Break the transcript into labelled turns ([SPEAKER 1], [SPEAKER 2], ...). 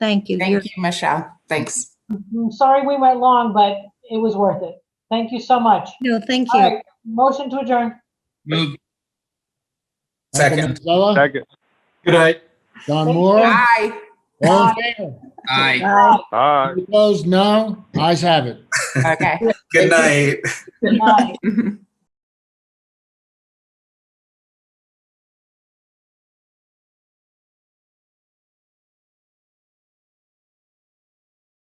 [SPEAKER 1] Thank you. You're-
[SPEAKER 2] Thank you, Michelle. Thanks.
[SPEAKER 3] I'm Mm, sorry we went long, but it was worth it. Thank you so much.
[SPEAKER 1] No, thank
[SPEAKER 3] All
[SPEAKER 1] you.
[SPEAKER 3] right, motion to adjourn.
[SPEAKER 4] Move.
[SPEAKER 5] Second.
[SPEAKER 6] Second.
[SPEAKER 5] Good night.
[SPEAKER 6] Don Moore,
[SPEAKER 2] Bye.
[SPEAKER 6] all in favor?
[SPEAKER 4] Aye.
[SPEAKER 6] Aye.
[SPEAKER 5] Aye.
[SPEAKER 6] Opposed, no? Ayes have it.
[SPEAKER 2] Okay.
[SPEAKER 5] Good night.
[SPEAKER 3] Good night.